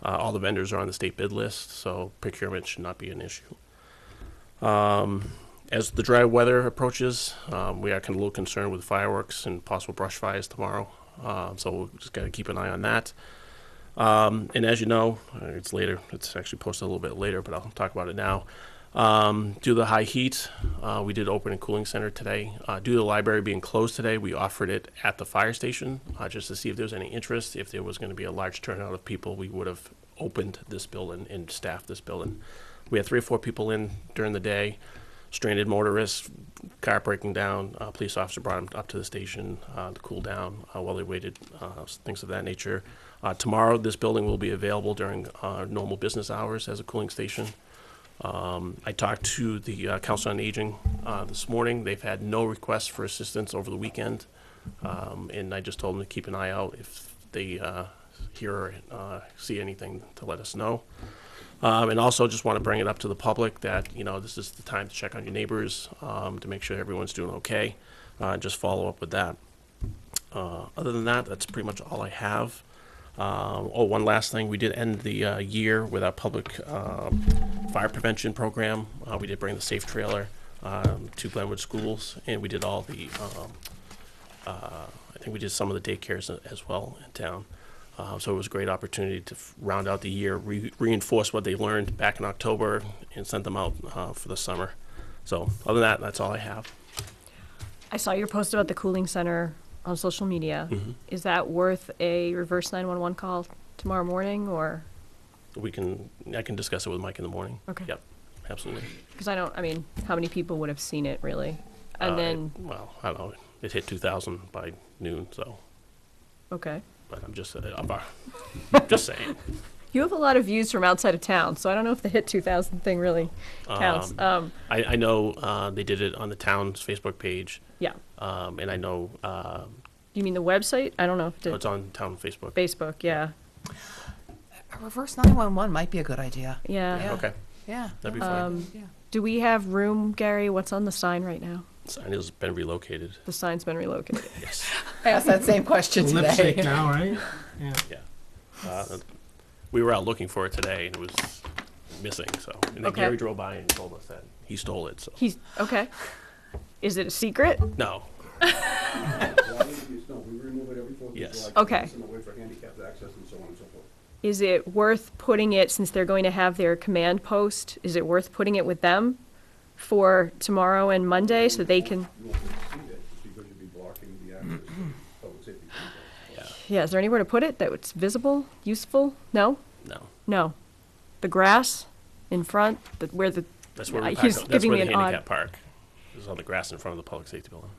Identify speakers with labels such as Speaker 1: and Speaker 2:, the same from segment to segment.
Speaker 1: Uh, all the vendors are on the state bid list, so procurement should not be an issue. Um, as the dry weather approaches, um, we are kind of a little concerned with fireworks and possible brush fires tomorrow. Uh, so we've just got to keep an eye on that. Um, and as you know, uh, it's later. It's actually posted a little bit later, but I'll talk about it now. Um, due to the high heat, uh, we did open a cooling center today. Uh, due to the library being closed today, we offered it at the fire station uh, just to see if there was any interest. If there was going to be a large turnout of people, we would have opened this building and staffed this building. We had three or four people in during the day, stranded motorists, car breaking down. Uh, police officer brought them up to the station uh, to cool down uh, while they waited, uh, things of that nature. Uh, tomorrow, this building will be available during uh, normal business hours as a cooling station. Um, I talked to the uh, Council on Aging uh, this morning. They've had no requests for assistance over the weekend. Um, and I just told them to keep an eye out if they uh, hear or uh, see anything to let us know. Um, and also just want to bring it up to the public that, you know, this is the time to check on your neighbors, um, to make sure everyone's doing okay. Uh, just follow up with that. Uh, other than that, that's pretty much all I have. Um, oh, one last thing, we did end the uh, year with our public um, fire prevention program. Uh, we did bring the safe trailer um, to Glenwood Schools, and we did all the, um, uh, I think we did some of the daycares a- as well in town. Uh, so it was a great opportunity to f- round out the year, re- reinforce what they learned back in October, and send them out uh, for the summer. So other than that, that's all I have.
Speaker 2: I saw your post about the cooling center on social media.
Speaker 1: Mm-hmm.
Speaker 2: Is that worth a reverse 911 call tomorrow morning or?
Speaker 1: We can, I can discuss it with Mike in the morning.
Speaker 2: Okay.
Speaker 1: Yep, absolutely.
Speaker 2: Because I don't, I mean, how many people would have seen it really? And
Speaker 1: Uh,
Speaker 2: then,
Speaker 1: it- well, I don't know. It hit 2,000 by noon, so.
Speaker 2: okay.
Speaker 1: But I'm just, uh, I'm, I'm just saying.
Speaker 2: You have a lot of views from outside of town, so I don't know if the hit 2000 thing really counts.
Speaker 1: Um,
Speaker 2: Um,
Speaker 1: I, I know uh, they did it on the town's Facebook page,
Speaker 2: yeah.
Speaker 1: um, and I know uh,
Speaker 2: You mean the website? I don't know if it did.
Speaker 1: it's on town Facebook.
Speaker 2: Facebook, yeah.
Speaker 3: A reverse 911 might be a good idea.
Speaker 2: Yeah. Um,
Speaker 3: Yeah.
Speaker 1: Okay,
Speaker 3: Yeah.
Speaker 1: that'd be fine.
Speaker 3: yeah.
Speaker 2: Do we have room, Gary? What's on the sign right now?
Speaker 1: Sign has been relocated.
Speaker 2: The sign's been relocated.
Speaker 1: Yes,
Speaker 3: I asked that same question
Speaker 4: Lip sync
Speaker 3: today.
Speaker 4: now, right? Yeah.
Speaker 1: yeah. Uh, we were out looking for it today, and it was missing. So, and then
Speaker 2: Okay.
Speaker 1: Gary drove by and told us that he stole it. So,
Speaker 2: He's, okay. Is it a secret?
Speaker 1: no,
Speaker 5: No, we remove it every Fourth of July.
Speaker 1: Yes.
Speaker 5: to
Speaker 2: Okay.
Speaker 5: Listen away for handicapped access and so on and so forth.
Speaker 2: is it worth putting it, since they're going to have their command post, is it worth putting it with them for tomorrow and Monday so they can,
Speaker 5: You won't be able to see that because you'd be blocking the access to public safety.
Speaker 1: yeah,
Speaker 2: yeah, is there anywhere to put it that it's visible, useful? No?
Speaker 1: no.
Speaker 2: No. The grass in front, the, where the,
Speaker 1: That's where we
Speaker 2: Uh, he's
Speaker 1: parked. That's
Speaker 2: giving
Speaker 1: where
Speaker 2: me
Speaker 1: the
Speaker 2: an odd-
Speaker 1: handicap park is on the grass in front of the public safety building.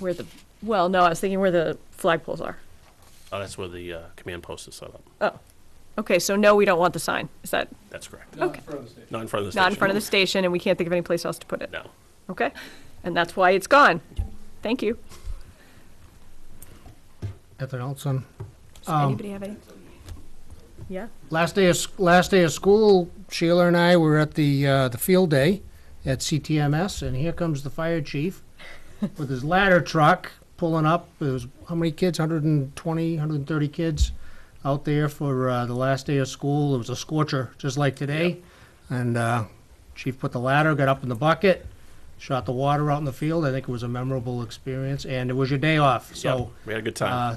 Speaker 2: where the, well, no, I was thinking where the flagpoles are.
Speaker 1: Oh, that's where the uh, command post is set up.
Speaker 2: Oh, okay, so no, we don't want the sign. Is that
Speaker 1: That's correct.
Speaker 2: Okay.
Speaker 1: Not in front of the
Speaker 2: not in
Speaker 1: station.
Speaker 2: front of the station and we can't think of any place else to put it?
Speaker 1: No.
Speaker 2: Okay, and that's why it's gone. Thank you.
Speaker 4: Ethan Olson.
Speaker 2: Does
Speaker 4: Um,
Speaker 2: anybody have any? Yeah?
Speaker 4: Last day of s- last day of school, Sheila and I were at the uh, the field day at CTMS, and here comes the fire chief with his ladder truck pulling up. It was how many kids? 120, 130 kids out there for uh, the last day of school. It was a scorcher, just like today. And uh, chief put the ladder, got up in the bucket, shot the water out in the field. I think it was a memorable experience, and it was your day off, so.
Speaker 1: Yep, we had a good time.
Speaker 4: Uh,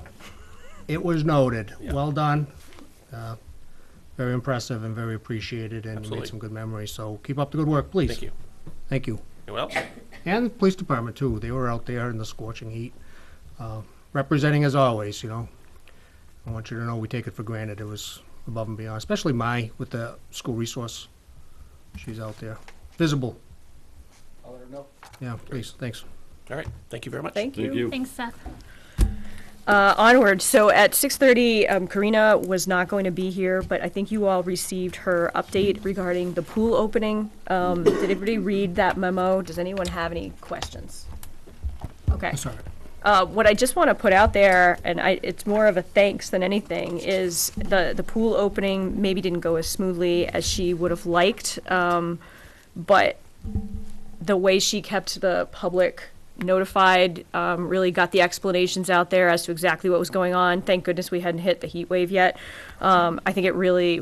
Speaker 4: It was noted.
Speaker 1: Yeah.
Speaker 4: Well done. Uh, Very impressive and very appreciated, and you
Speaker 1: Absolutely.
Speaker 4: made some good memories. So keep up the good work, please.
Speaker 1: Thank you.
Speaker 4: Thank you.
Speaker 1: Anyone else?
Speaker 4: And the police department, too. They were out there in the scorching heat, uh, representing as always, you know. I want you to know we take it for granted. It was above and beyond, especially Mai with the school resource. She's out there, visible.
Speaker 5: I'll let her know.
Speaker 4: Yeah, please, thanks.
Speaker 1: All right. Thank you very much.
Speaker 2: Thank you.
Speaker 6: Thanks, Seth.
Speaker 2: Uh, onward. So at 6:30, um, Karina was not going to be here, but I think you all received her update regarding the pool opening. Um, did everybody read that memo? Does anyone have any questions? Okay.
Speaker 4: Sorry.
Speaker 2: Uh, what I just want to put out there, and I, it's more of a thanks than anything, is the the pool opening maybe didn't go as smoothly as she would have liked, um, but the way she kept the public notified, um, really got the explanations out there as to exactly what was going on. Thank goodness we hadn't hit the heat wave yet. Um, I think it really